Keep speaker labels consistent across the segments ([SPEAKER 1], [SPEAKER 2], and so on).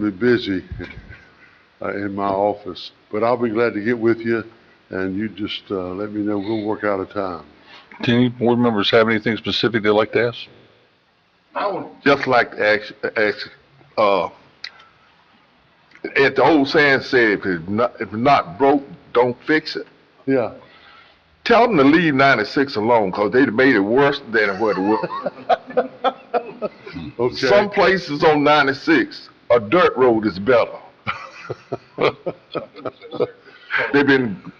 [SPEAKER 1] be busy uh, in my office, but I'll be glad to get with you, and you just uh, let me know, we'll work out a time.
[SPEAKER 2] Do any board members have anything specific they'd like to ask?
[SPEAKER 3] I would just like to ask, ask, uh, if the old saying said, if it's not, if it's not broke, don't fix it.
[SPEAKER 1] Yeah,
[SPEAKER 3] Tell them to leave ninety-six alone, cause they done made it worse than what it was. Some
[SPEAKER 1] okay.
[SPEAKER 3] places on ninety-six, a dirt road is better. They've been,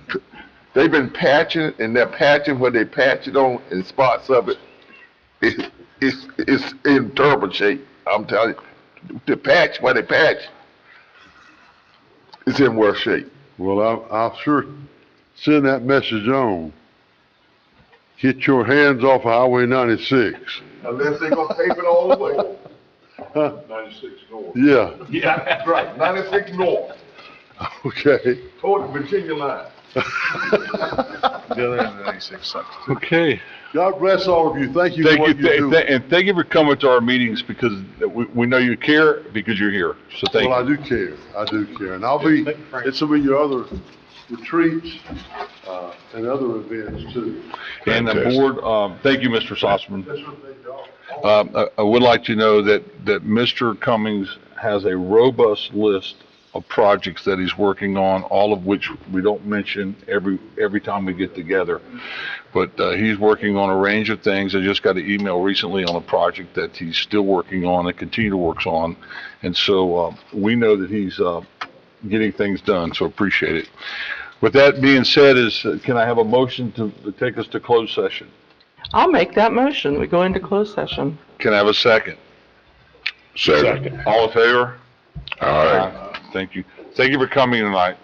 [SPEAKER 3] they've been patching, and they're patching where they patch it on, and spots of it, it's, it's, it's in terrible shape, I'm telling you. The patch, where they patch, it's in worse shape.
[SPEAKER 1] Well, I'll, I'll sure send that message on. Get your hands off Highway 96.
[SPEAKER 3] Unless they gonna pave it all the way.
[SPEAKER 4] Ninety-six north.
[SPEAKER 1] Yeah,
[SPEAKER 3] Yeah, right, ninety-six north,
[SPEAKER 1] okay.
[SPEAKER 3] toward the Virginia line.
[SPEAKER 4] The other end of ninety-six sucks.
[SPEAKER 2] Okay.
[SPEAKER 1] God bless all of you. Thank you for
[SPEAKER 2] Thank you,
[SPEAKER 1] what you
[SPEAKER 2] th-
[SPEAKER 1] do.
[SPEAKER 2] th- and thank you for coming to our meetings because we, we know you care because you're here. So thank
[SPEAKER 1] Well,
[SPEAKER 2] you.
[SPEAKER 1] I do care, I do care, and I'll be, it's some of your other retreats, uh, and other events too.
[SPEAKER 2] And the
[SPEAKER 4] Fantastic.
[SPEAKER 2] board, um, thank you, Mr. Sossaman.
[SPEAKER 1] That's what they do.
[SPEAKER 2] Um, I- I would like to know that, that Mr. Cummings has a robust list of projects that he's working on, all of which we don't mention every, every time we get together. But uh, he's working on a range of things. I just got an email recently on a project that he's still working on and continue to works on. And so uh, we know that he's uh, getting things done, so appreciate it. With that being said, is, uh, can I have a motion to to take us to closed session?
[SPEAKER 5] I'll make that motion. We go into closed session.
[SPEAKER 2] Can I have a second? Second. All in favor? All right. Thank you. Thank you for coming tonight.